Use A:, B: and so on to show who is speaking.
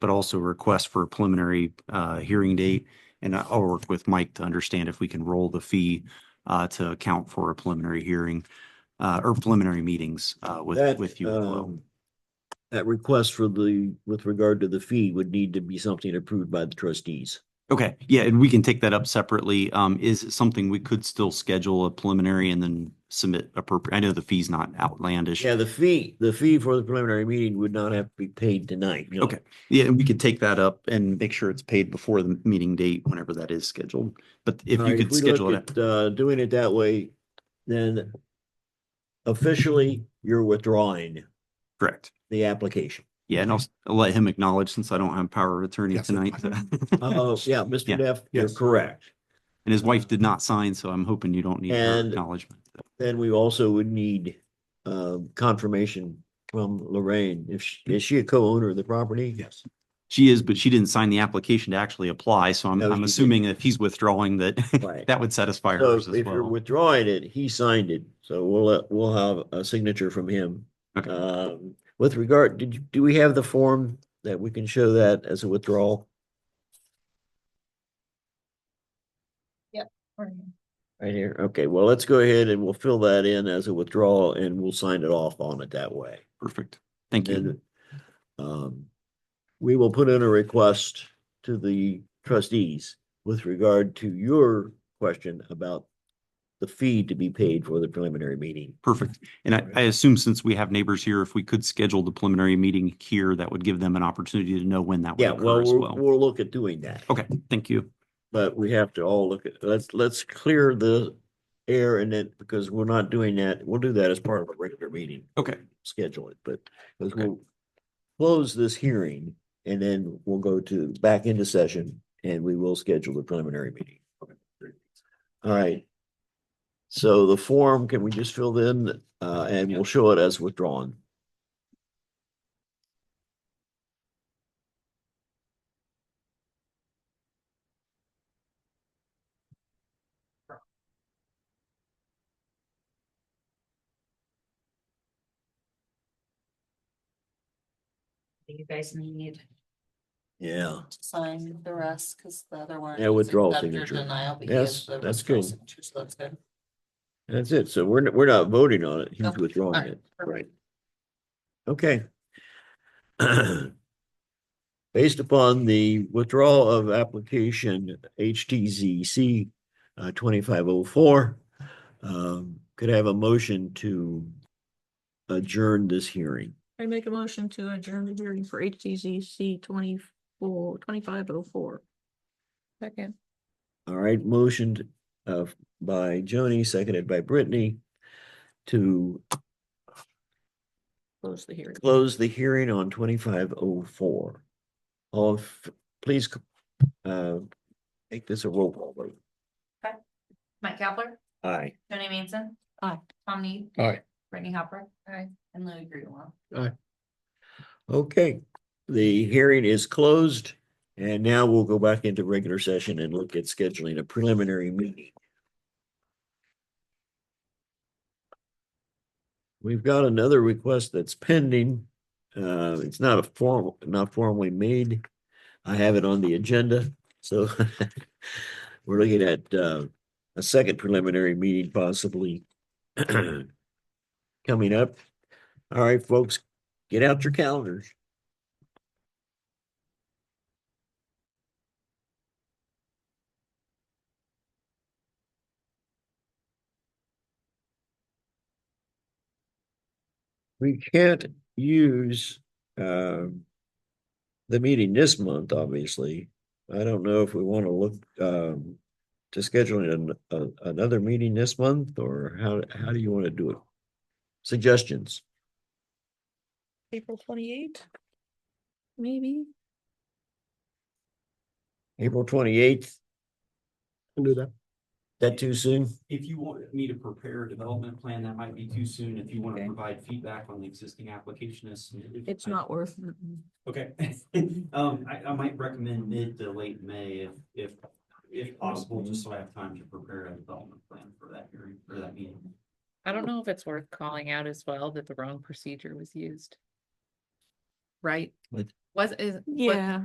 A: but also a request for a preliminary uh,
B: Mm-hmm.
A: hearing date. And I- I'll work with Mike to understand if we can roll the fee uh, to account for a preliminary hearing uh, or preliminary meetings uh, with,
B: That,
A: with you as well.
B: um, That request for the, with regard to the fee would need to be something approved by the trustees.
A: Okay, yeah, and we can take that up separately. Um, is it something we could still schedule a preliminary and then submit appropriate? I know the fee's not outlandish.
B: Yeah, the fee, the fee for the preliminary meeting would not have to be paid tonight. you know.
A: Okay. Yeah, and we could take that up and make sure it's paid before the meeting date, whenever that is scheduled. But if
B: All
A: you
B: right,
A: could
B: we
A: schedule
B: look
A: it,
B: at, Uh, doing it that way, then officially you're withdrawing
A: correct.
B: the application.
A: Yeah, and I'll, s-
B: Mm-hmm.
A: I'll let him acknowledge since I don't have power of attorney
C: Yes, that's
A: tonight.
B: Oh, yeah,
A: Yeah.
B: Mr. Neff, you're
C: Yes.
B: correct.
A: And his wife did not sign, so I'm hoping you don't need her
B: And-
A: acknowledgement.
B: Then we also would need, uh, confirmation from Lorraine. If she, is she a co-owner of the property?
C: Yes.
A: She is, but she didn't sign the application to actually apply, so I'm,
B: No, she
A: I'm
B: didn't.
A: assuming if he's withdrawing that,
B: Right.
A: that would satisfy
B: So
A: hers as
B: if you're
A: well.
B: withdrawing it, he signed it, so we'll, let- we'll have a signature from him.
A: Okay.
B: Um, with regard, did, you- do we have the form that we can show that as a withdrawal? Right here, okay, well, let's go ahead and we'll fill that in as a withdrawal and we'll sign it off on it that way.
A: Perfect. Thank you.
B: And, um, we will put in a request to the trustees with regard to your question about the fee to be paid for the preliminary meeting.
A: Perfect. And I, I assume since we have neighbors here, if we could schedule the preliminary meeting here, that would give them an opportunity to know when that would
B: Yeah,
A: occur
B: well,
A: as
B: we'll,
A: well.
B: we'll look at doing that,
A: Okay, thank you.
B: but we have to all look at, let's, let's clear the air and then, because we're not doing that, we'll do that as part of a regular meeting.
A: Okay.
B: Schedule it, but because
A: Okay.
B: we'll close this hearing and then we'll go to, back into session and we will schedule the preliminary meeting. All right. So the form, can we just fill in, uh, and we'll show it as withdrawn?
D: that You guys need
B: Yeah.
D: to sign the rest, because the other one.
B: Yeah, withdrawal
D: accept your
B: signature.
D: Denial. but he
B: Yes,
D: has the
B: that's
D: withdrawal
B: good.
D: signature, so that's good.
B: That's it. So we're, we're not voting on it. He's
D: Okay,
B: withdrawing
D: alright,
B: it.
D: perfect.
B: Okay. Based upon the withdrawal of application HTZC twenty-five oh four, um, could I have a motion to adjourn this hearing?
E: I make a motion to adjourn the hearing for HTCC twenty-four, twenty-five oh four. Second.
B: All right, motioned uh, by Joni, seconded by Brittany to
E: Close the hearing.
B: close the hearing on twenty-five oh four. All, f- please uh, make this a roll call vote.
F: Mike Kavler,
B: Aye.
F: Tony Manson.
D: Aye.
F: Tom Need,
C: Aye.
F: Brittany Hopper. Aye. And Louis Greenwell.
B: Okay, the hearing is closed and now we'll go back into regular session and look at scheduling a preliminary meeting. We've got another request that's pending. Uh, it's not a formal, not formally made. I have it on the agenda, so we're looking at uh, a second preliminary meeting possibly coming up. All right, folks, get out your calendars. We can't use um the meeting this month, obviously. I don't know if we want to look um to scheduling an, a- another meeting this month or how, how do you want to do it? Suggestions?
E: April twenty-eighth? Maybe?
B: April twenty-eighth,
C: Can do that.
B: that too soon?
A: If you want me to prepare a development plan, that might be too soon. If you want
E: Okay.
A: provide feedback on the existing application as submitted.
E: It's
A: I-
E: not worth.
A: Okay. Um, I, I might recommend mid to late May if, if, if possible, just so I have time to prepare a development plan for that hearing, for that meeting.
G: I don't know if it's worth calling out as well that the wrong procedure was used.
B: right?
H: With-
B: Was, is. was-
H: Yeah.